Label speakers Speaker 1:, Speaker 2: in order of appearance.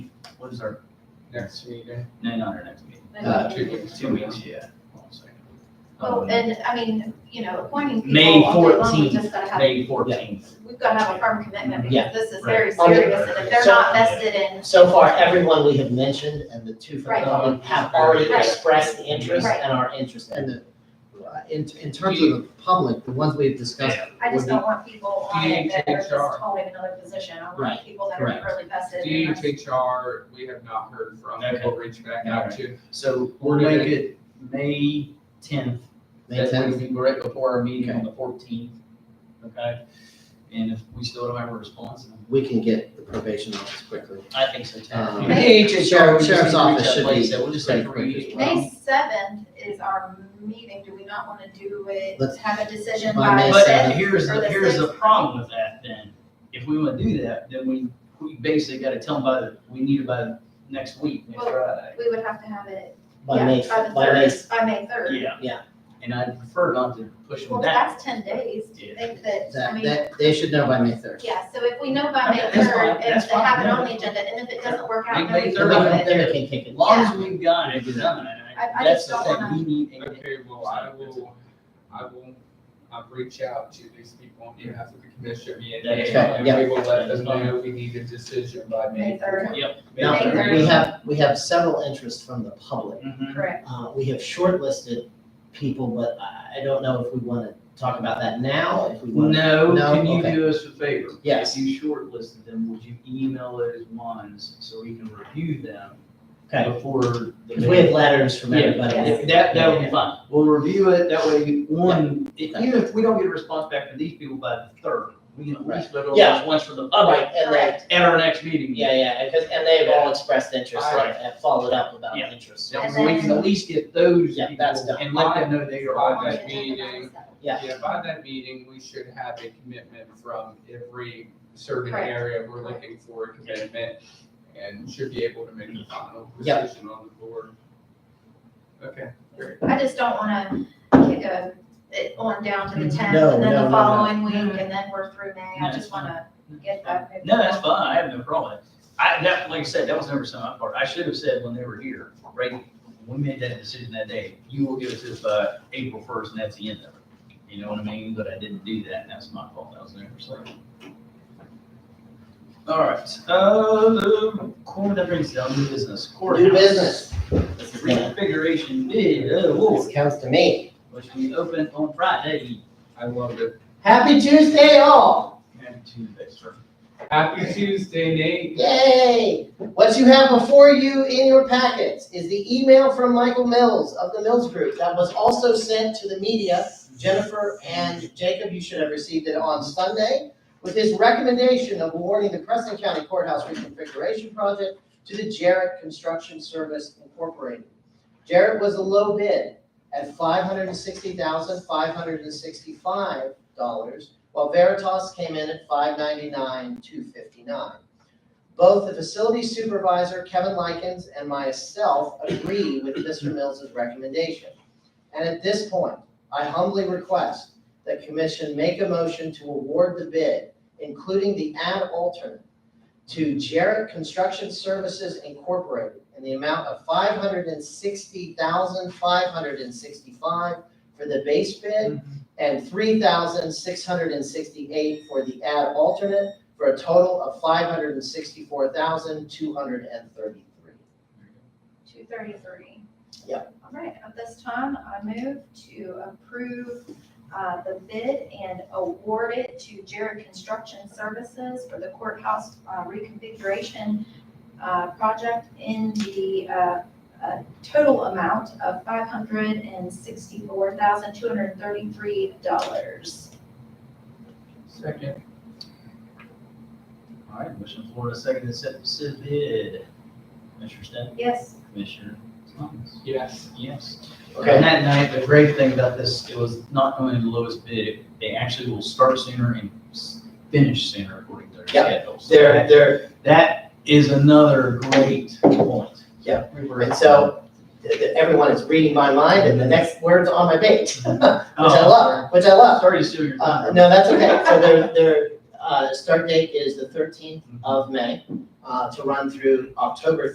Speaker 1: What is our
Speaker 2: next meeting.
Speaker 3: No, not our next meeting.
Speaker 2: Uh, two weeks.
Speaker 3: Two weeks, yeah. Hold on a second.
Speaker 4: Well,
Speaker 3: Um,
Speaker 4: and I mean, you know, appointing people.
Speaker 3: May
Speaker 4: all day long, we
Speaker 3: 14th,
Speaker 4: just gotta have-
Speaker 3: May fourteenth.
Speaker 4: We've got to have a firm commitment
Speaker 5: Yeah.
Speaker 4: because this is very
Speaker 5: Right.
Speaker 4: serious and if they're
Speaker 5: So-
Speaker 4: not vested in,
Speaker 5: So far, everyone we have mentioned and the two from
Speaker 4: Right.
Speaker 5: the public have already
Speaker 4: Right.
Speaker 5: expressed interest
Speaker 4: Right.
Speaker 5: and are interested.
Speaker 6: And the, uh, in, in terms of the public, the ones we've discussed.
Speaker 4: I just
Speaker 6: would
Speaker 4: don't want people on
Speaker 2: You
Speaker 4: it that are just
Speaker 2: HR.
Speaker 4: holding another position. I want
Speaker 5: Right.
Speaker 4: people that are
Speaker 5: Correct.
Speaker 4: really vested. in us.
Speaker 2: DHR, we have not heard from,
Speaker 3: Okay.
Speaker 2: we'll reach back out to.
Speaker 3: So we'll make it May tenth.
Speaker 6: be-
Speaker 3: That would be right before our meeting on the fourteenth, okay? And if we still don't have a response, then
Speaker 6: we can get the probation office quickly.
Speaker 5: I think so too.
Speaker 6: Um,
Speaker 3: The AHR, we just need
Speaker 6: Sheriff's
Speaker 3: to reach
Speaker 6: office
Speaker 3: out,
Speaker 6: should
Speaker 3: like I
Speaker 6: be
Speaker 3: said, we'll just have to
Speaker 6: pretty quick
Speaker 3: read
Speaker 6: as well.
Speaker 4: May seventh is our meeting. Do we not want to do it,
Speaker 6: Let's-
Speaker 4: have a decision
Speaker 6: by
Speaker 4: by
Speaker 6: May
Speaker 3: But
Speaker 4: the
Speaker 6: seventh.
Speaker 3: then
Speaker 4: fifth?
Speaker 3: here's,
Speaker 4: or
Speaker 3: the
Speaker 4: the
Speaker 3: here's the
Speaker 4: sixth.
Speaker 3: problem with that then. If we wanna do that, then we, we basically gotta tell them by, the we need it by next week, next
Speaker 4: Well-
Speaker 3: Friday.
Speaker 4: We would have to have it,
Speaker 5: By
Speaker 4: yeah,
Speaker 5: May,
Speaker 4: by the
Speaker 5: by May,
Speaker 4: third, by May third.
Speaker 3: Yeah.
Speaker 5: Yeah.
Speaker 3: And I prefer not to push
Speaker 4: Well,
Speaker 3: them back.
Speaker 4: that's ten days. Do you
Speaker 3: Yeah.
Speaker 4: think that, I
Speaker 6: That,
Speaker 4: mean,
Speaker 6: that, they should know by May third.
Speaker 4: yeah, so if we know by
Speaker 3: Okay,
Speaker 4: May
Speaker 3: that's fine,
Speaker 4: third,
Speaker 3: that's
Speaker 4: if they
Speaker 3: fine,
Speaker 4: have it
Speaker 3: yeah.
Speaker 4: on the agenda, and if it doesn't work
Speaker 3: Make
Speaker 4: out,
Speaker 3: May
Speaker 4: then we
Speaker 5: then
Speaker 4: can
Speaker 5: we
Speaker 3: third.
Speaker 4: do
Speaker 5: can,
Speaker 4: it.
Speaker 5: then we can kick
Speaker 3: As
Speaker 5: it.
Speaker 3: long as we've got it done,
Speaker 4: I- I
Speaker 3: that's
Speaker 4: just
Speaker 3: the
Speaker 4: don't
Speaker 3: thing,
Speaker 4: wanna-
Speaker 3: we need a
Speaker 2: Okay, well, I will, I will, I'll reach out to these people on behalf of the commissioner meeting.
Speaker 3: That's
Speaker 2: And
Speaker 6: fine,
Speaker 2: we will let them know we need a decision by May.
Speaker 4: May third.
Speaker 2: May
Speaker 5: Now,
Speaker 4: May
Speaker 5: we
Speaker 4: third.
Speaker 5: have, we have several interests from the public.
Speaker 3: Mhm.
Speaker 4: Correct.
Speaker 5: Uh, we have shortlisted people, but I, I don't know if we wanna talk about that now, if we wanna.
Speaker 3: No,
Speaker 5: No,
Speaker 3: can you
Speaker 5: okay.
Speaker 3: do us a favor?
Speaker 5: Yes.
Speaker 3: If you shortlisted them, would you email those ones so we can review them
Speaker 5: Okay,
Speaker 3: before the.
Speaker 5: cause we have letters from
Speaker 3: Yeah,
Speaker 5: everybody.
Speaker 4: Yes.
Speaker 3: That, that would be fine. We'll review it, that way, one, e-
Speaker 5: Okay.
Speaker 3: even if we don't get a response back from these people by the third, we can at least vote on
Speaker 5: Yeah.
Speaker 3: those ones for the
Speaker 5: All
Speaker 3: public
Speaker 5: right, and then,
Speaker 3: at our next meeting.
Speaker 5: yeah, yeah, because, and they've all expressed interest
Speaker 3: All right.
Speaker 5: and have followed up about
Speaker 3: Yeah.
Speaker 5: interest.
Speaker 3: So
Speaker 4: And
Speaker 3: we can
Speaker 4: then-
Speaker 3: at least get those
Speaker 5: Yeah,
Speaker 3: people
Speaker 5: that's done.
Speaker 3: and let them know they are
Speaker 2: By
Speaker 3: on
Speaker 2: that
Speaker 3: that.
Speaker 4: On the agenda by
Speaker 2: meeting.
Speaker 4: the seventh.
Speaker 5: Yeah.
Speaker 2: Yeah, by that meeting, we should have a commitment from every certain
Speaker 4: Correct.
Speaker 2: area we're
Speaker 4: Correct.
Speaker 2: looking for a commitment and should be able to make the final
Speaker 5: Yep.
Speaker 2: decision on the board. Okay.
Speaker 4: I just don't wanna kick a, it on down to the tenth,
Speaker 5: Mm, No,
Speaker 4: and then
Speaker 5: no, no,
Speaker 4: the
Speaker 5: no.
Speaker 4: following week, and then we're through May,
Speaker 3: No,
Speaker 4: I
Speaker 3: it's
Speaker 4: just wanna get that.
Speaker 3: No, that's fine, I have no problem with it. I, that, like I said, that was never some of my part, I should have said when they were here, right, when we made that decision that day, you will give us this by April first, and that's the end of it. You know what I mean, but I didn't do that, and that's my fault, that was never so. All right, uh, Corey, that brings down new business, courthouse.
Speaker 5: New business. This is gonna-
Speaker 3: Reconfiguration bid, oh, Lord,
Speaker 5: This comes to me.
Speaker 3: which we opened on Friday,
Speaker 2: I love it.
Speaker 5: Happy Tuesday, all.
Speaker 3: and Tuesday, sir.
Speaker 2: Happy Tuesday, Nate.
Speaker 5: Yay! What you have before you in your packets is the email from Michael Mills of the Mills Group that was also sent to the media. Jennifer and Jacob, you should have received it on Sunday with his recommendation of awarding the Preston County Courthouse reconfiguration project to the Jarrett Construction Service Incorporated. Jarrett was a low bid at five hundred and sixty thousand, five hundred and sixty-five dollars, while Veritas came in at five ninety-nine, two fifty-nine. Both the facility supervisor, Kevin Likens, and myself agree with Mr. Mills's recommendation. And at this point, I humbly request that commission make a motion to award the bid, including the ad alternate, to Jarrett Construction Services Incorporated in the amount of five hundred and sixty thousand, five hundred and sixty-five for the base bid and three thousand, six hundred and sixty-eight for the ad alternate for a total of five hundred and sixty-four thousand, two hundred and thirty-three.
Speaker 4: Two thirty-three.
Speaker 5: Yeah.
Speaker 4: All right, at this time, I move to approve, uh, the bid and award it to Jared Construction Services for the courthouse uh, reconfiguration, uh, project in the, uh, uh, total amount of five hundred and sixty-four thousand, two hundred and thirty-three dollars.
Speaker 2: Second.
Speaker 3: All right, motion on Florida, second, accept the said bid. Commissioner Stan?
Speaker 4: Yes,
Speaker 3: Commissioner Thomas.
Speaker 2: Yes.
Speaker 3: Yes.
Speaker 5: Okay.
Speaker 3: And that night, the great thing about this, it was not going to the lowest bid. They actually will start sooner and s- finish sooner according to their
Speaker 5: Yeah.
Speaker 3: schedules.
Speaker 5: There, there,
Speaker 3: That is another great point.
Speaker 5: Yeah.
Speaker 3: We were-
Speaker 5: and so, th- th- everyone is reading my mind, and the next word's on my page, which I
Speaker 3: Oh,
Speaker 5: love, which I love.
Speaker 3: Sorry to steal your
Speaker 5: Uh,
Speaker 3: thunder.
Speaker 5: no, that's okay, so their, their, uh, start date is the thirteenth of May, uh, to run through October